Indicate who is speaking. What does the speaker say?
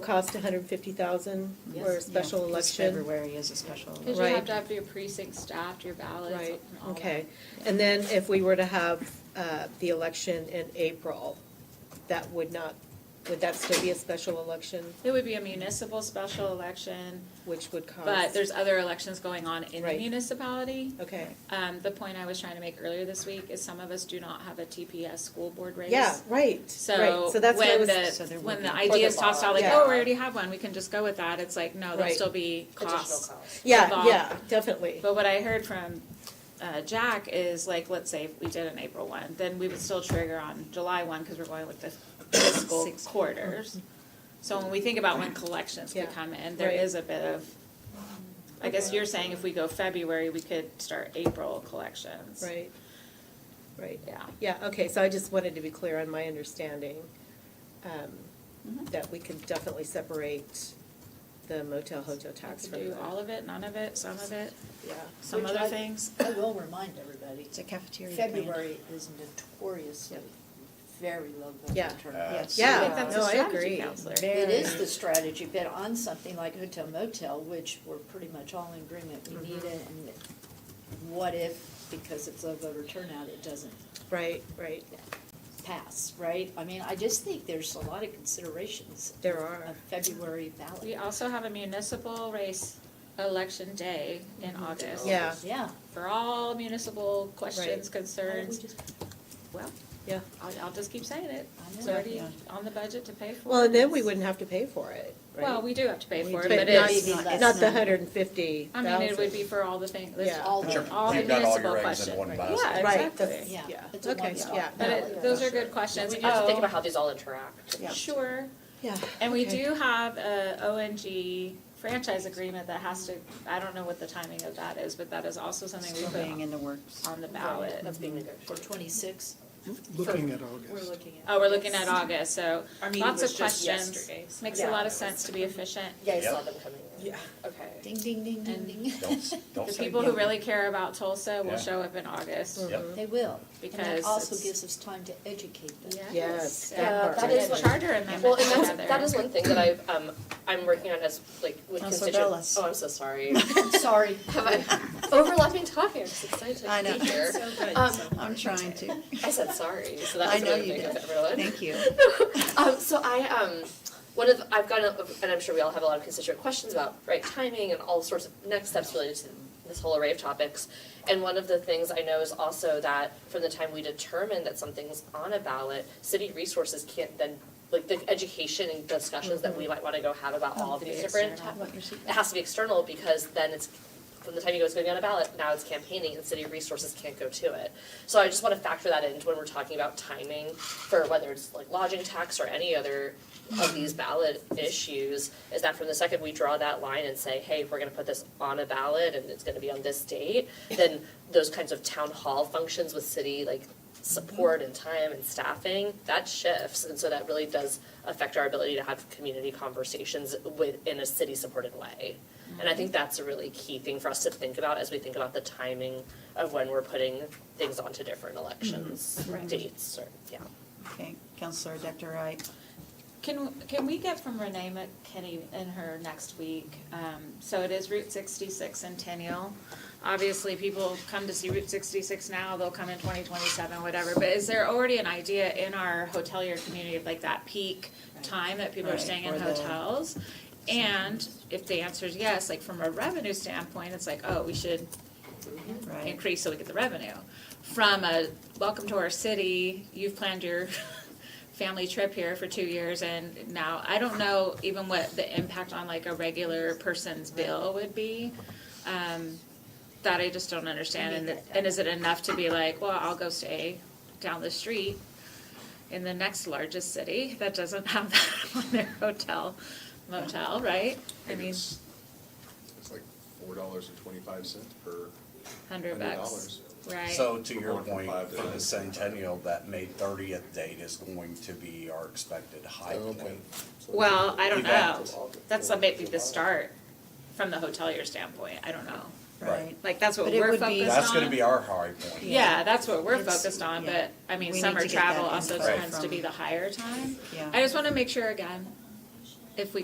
Speaker 1: cost hundred and fifty thousand
Speaker 2: Yes,
Speaker 1: for
Speaker 2: yeah,
Speaker 1: a special
Speaker 2: 'cause
Speaker 1: election?
Speaker 2: February is a special.
Speaker 3: Because
Speaker 2: election.
Speaker 3: you
Speaker 1: Right.
Speaker 3: have to have your precinct staffed, your ballots.
Speaker 1: Right,
Speaker 3: and all that.
Speaker 1: okay. And then if we were to have uh, the election in April, that would not, would that still be a special election,
Speaker 3: It would be a municipal special election,
Speaker 1: which would cost?
Speaker 3: but there's other elections going on in the
Speaker 1: Right.
Speaker 3: municipality.
Speaker 1: Okay,
Speaker 3: Um, the point I was trying to make earlier this week is some of us do not have a TPS school board race.
Speaker 1: yeah, right, right.
Speaker 3: So
Speaker 1: So that's what I
Speaker 3: when
Speaker 1: was.
Speaker 2: So
Speaker 3: the,
Speaker 2: there
Speaker 3: when
Speaker 2: would
Speaker 3: the
Speaker 2: be-
Speaker 3: idea is
Speaker 4: Or the
Speaker 3: tossed out, like,
Speaker 1: bar.
Speaker 3: oh,
Speaker 1: Yeah.
Speaker 3: we already have one, we can just go with that, it's like, no, there'll
Speaker 1: Right.
Speaker 3: still be costs.
Speaker 1: Yeah,
Speaker 3: involved.
Speaker 1: yeah, definitely,
Speaker 3: But what I heard from uh, Jack is like, let's say if we did an April one, then we would still trigger on July one because we're going with the fiscal
Speaker 2: Six.
Speaker 3: quarters. So when we think about when collections could
Speaker 1: Yeah,
Speaker 3: come in, there
Speaker 1: right.
Speaker 3: is a bit of, I guess you're saying if we go February, we could start April collections.
Speaker 1: right, right.
Speaker 3: Yeah.
Speaker 1: Yeah, okay, so I just wanted to be clear on my understanding, um,
Speaker 3: Mhm.
Speaker 1: that we could definitely separate the motel hotel
Speaker 3: We
Speaker 1: tax
Speaker 3: could
Speaker 1: from
Speaker 3: do
Speaker 1: that.
Speaker 3: all of it, none of it, some of it,
Speaker 1: Yeah,
Speaker 3: some
Speaker 4: Which
Speaker 3: other
Speaker 4: I-
Speaker 3: things.
Speaker 4: I will remind everybody,
Speaker 2: It's a cafeteria plan.
Speaker 4: February is notoriously very low
Speaker 1: Yeah.
Speaker 4: voter turnout.
Speaker 2: Yes.
Speaker 1: Yeah.
Speaker 3: I think that's a
Speaker 1: No, I
Speaker 3: strategy
Speaker 1: agree.
Speaker 3: counselor.
Speaker 4: It is the strategy, but on something like hotel motel, which we're pretty much all in agreement, we
Speaker 3: Mm-hmm.
Speaker 4: need it, and what if, because it's low voter turnout, it doesn't
Speaker 1: right, right,
Speaker 4: pass, right? I mean, I just think there's a lot of considerations
Speaker 1: there are.
Speaker 4: of February
Speaker 3: We
Speaker 4: ballot.
Speaker 3: also have a municipal race election day in August.
Speaker 1: Yeah,
Speaker 4: Yeah.
Speaker 3: for all municipal questions, concerns,
Speaker 4: I
Speaker 3: well,
Speaker 1: yeah.
Speaker 3: I'll, I'll just keep saying it. It's
Speaker 4: know,
Speaker 3: already
Speaker 4: yeah.
Speaker 3: on the budget to pay for.
Speaker 1: Well, and then
Speaker 3: it.
Speaker 1: we wouldn't have to pay for it, right?
Speaker 3: Well, we do have to pay
Speaker 4: We
Speaker 3: for it,
Speaker 4: do.
Speaker 3: but
Speaker 1: But not,
Speaker 3: it's,
Speaker 4: Maybe less
Speaker 1: not the
Speaker 4: than-
Speaker 1: hundred and fifty
Speaker 3: I
Speaker 1: thousand.
Speaker 3: mean, it would be for all the things, it's
Speaker 1: Yeah.
Speaker 4: All
Speaker 3: all,
Speaker 4: the-
Speaker 5: Sure,
Speaker 3: all the
Speaker 5: you've got all your
Speaker 3: municipal
Speaker 5: eggs in
Speaker 3: questions.
Speaker 5: one
Speaker 3: Right,
Speaker 5: basket.
Speaker 3: yeah,
Speaker 1: Right,
Speaker 3: exactly.
Speaker 1: Yeah,
Speaker 4: It's a
Speaker 1: okay,
Speaker 4: one-stop
Speaker 1: yeah.
Speaker 3: But it, those are good questions.
Speaker 4: That's-
Speaker 5: We just have to think
Speaker 3: Oh,
Speaker 5: about how these all interact.
Speaker 1: Yeah.
Speaker 3: Sure,
Speaker 1: Yeah.
Speaker 3: and we
Speaker 1: okay.
Speaker 3: do have a ONG franchise agreement that has to, I don't know what the timing of that is, but that is also something we put
Speaker 2: in the works.
Speaker 3: on the ballot.
Speaker 5: That's being
Speaker 4: For
Speaker 5: negotiated.
Speaker 4: twenty-six.
Speaker 6: Looking at
Speaker 4: We're
Speaker 6: August.
Speaker 4: looking at.
Speaker 3: Oh, we're looking at August, so
Speaker 7: Our meeting
Speaker 3: lots
Speaker 7: was
Speaker 3: of
Speaker 7: just
Speaker 3: questions.
Speaker 7: yesterday. so-
Speaker 3: Makes a lot of sense to be efficient.
Speaker 5: Yeah, I saw Yep. them coming.
Speaker 7: Yeah.
Speaker 3: Okay.
Speaker 4: Ding, ding, ding, ding, ding.
Speaker 5: Don't, don't
Speaker 3: The
Speaker 5: say
Speaker 3: people
Speaker 5: no.
Speaker 3: who really care about Tulsa
Speaker 5: Yeah.
Speaker 3: will show up in August
Speaker 5: Yep.
Speaker 4: They will. And
Speaker 3: because
Speaker 4: that also
Speaker 3: it's.
Speaker 4: gives us time to educate them.
Speaker 1: Yes,
Speaker 3: Yes,
Speaker 1: that
Speaker 3: uh,
Speaker 1: part.
Speaker 3: that
Speaker 5: That
Speaker 3: is
Speaker 5: is
Speaker 3: charter amendment
Speaker 5: Well, and
Speaker 3: together.
Speaker 5: that's, that is one thing that I've, um, I'm working on as, like, with
Speaker 2: Oh,
Speaker 5: constituents.
Speaker 2: Sorbella's.
Speaker 5: Oh, I'm so sorry.
Speaker 4: I'm sorry.
Speaker 5: Have I, overlapping topics, excited
Speaker 2: I know.
Speaker 5: to be here.
Speaker 7: So good,
Speaker 5: Um,
Speaker 7: so
Speaker 2: I'm trying to.
Speaker 5: I said sorry, so that
Speaker 2: I
Speaker 5: was
Speaker 2: know
Speaker 5: another
Speaker 2: you
Speaker 5: thing
Speaker 2: did.
Speaker 5: of everyone.
Speaker 2: Thank you.
Speaker 5: Um, so I, um, one of, I've got, a- and I'm sure we all have a lot of constituent questions about right timing and all sorts of next steps related to this whole array of topics. And one of the things I know is also that from the time we determine that something's on a ballot, city resources can't then, like the education and discussions that we might wanna go have about all of these different
Speaker 3: external.
Speaker 5: top- it has to be external because then it's, from the time you go, it's going on a ballot, now it's campaigning and city resources can't go to it. So I just wanna factor that into when we're talking about timing for whether it's like lodging tax or any other of these ballot issues, is that from the second we draw that line and say, hey, we're gonna put this on a ballot and it's gonna be on this date, then those kinds of town hall functions with city, like support and time and staffing, that shifts. And so that really does affect our ability to have community conversations with, in a city-supported way. And I think that's a really key thing for us to think about as we think about the timing of when we're putting things onto different elections, dates, or, yeah.
Speaker 2: Okay, Counselor Dr. Wright.
Speaker 3: Can, can we get from Renee McKinney in her next week? Um, so it is Route sixty-six centennial. Obviously, people come to see Route sixty-six now, they'll come in twenty twenty-seven, whatever, but is there already an idea in our hotelier community of like that peak time that people are
Speaker 2: Right,
Speaker 3: staying in
Speaker 2: or the-
Speaker 3: hotels? And if the answer is yes, like from a revenue standpoint, it's like, oh, we should
Speaker 2: Right.
Speaker 3: increase so we get the revenue. From a welcome to our city, you've planned your family trip here for two years and now, I don't know even what the impact on like a regular person's bill would be. Um, that I just don't understand and, it- and is it enough to be like, well, I'll go stay down the street in the next largest city that doesn't have that on their hotel motel, right? I mean,
Speaker 8: It's it's like four dollars and twenty-five cents per
Speaker 3: hundred
Speaker 8: hundred
Speaker 3: bucks,
Speaker 8: dollars.
Speaker 3: right?
Speaker 9: So to your
Speaker 8: Going from
Speaker 9: point,
Speaker 8: five to
Speaker 9: for
Speaker 8: nine.
Speaker 9: the centennial, that May thirtieth date is going to be our expected high
Speaker 8: Oh, Okay.
Speaker 9: point.
Speaker 8: So
Speaker 3: Well, I don't
Speaker 9: We've got-
Speaker 3: know. That's the- maybe the start from the hotelier standpoint. I don't know.
Speaker 2: Right.
Speaker 3: Like, that's what
Speaker 2: But it
Speaker 3: we're
Speaker 2: would be-
Speaker 3: focused on.
Speaker 9: That's gonna be our high point.
Speaker 3: Yeah, that's what we're
Speaker 2: It's-
Speaker 3: focused on,
Speaker 2: yeah.
Speaker 3: but I mean,
Speaker 2: We need
Speaker 3: summer
Speaker 2: to get that
Speaker 3: travel also
Speaker 2: info
Speaker 3: tends to
Speaker 2: from-
Speaker 3: be the higher time.
Speaker 2: Yeah.
Speaker 3: I just wanna make sure again, if we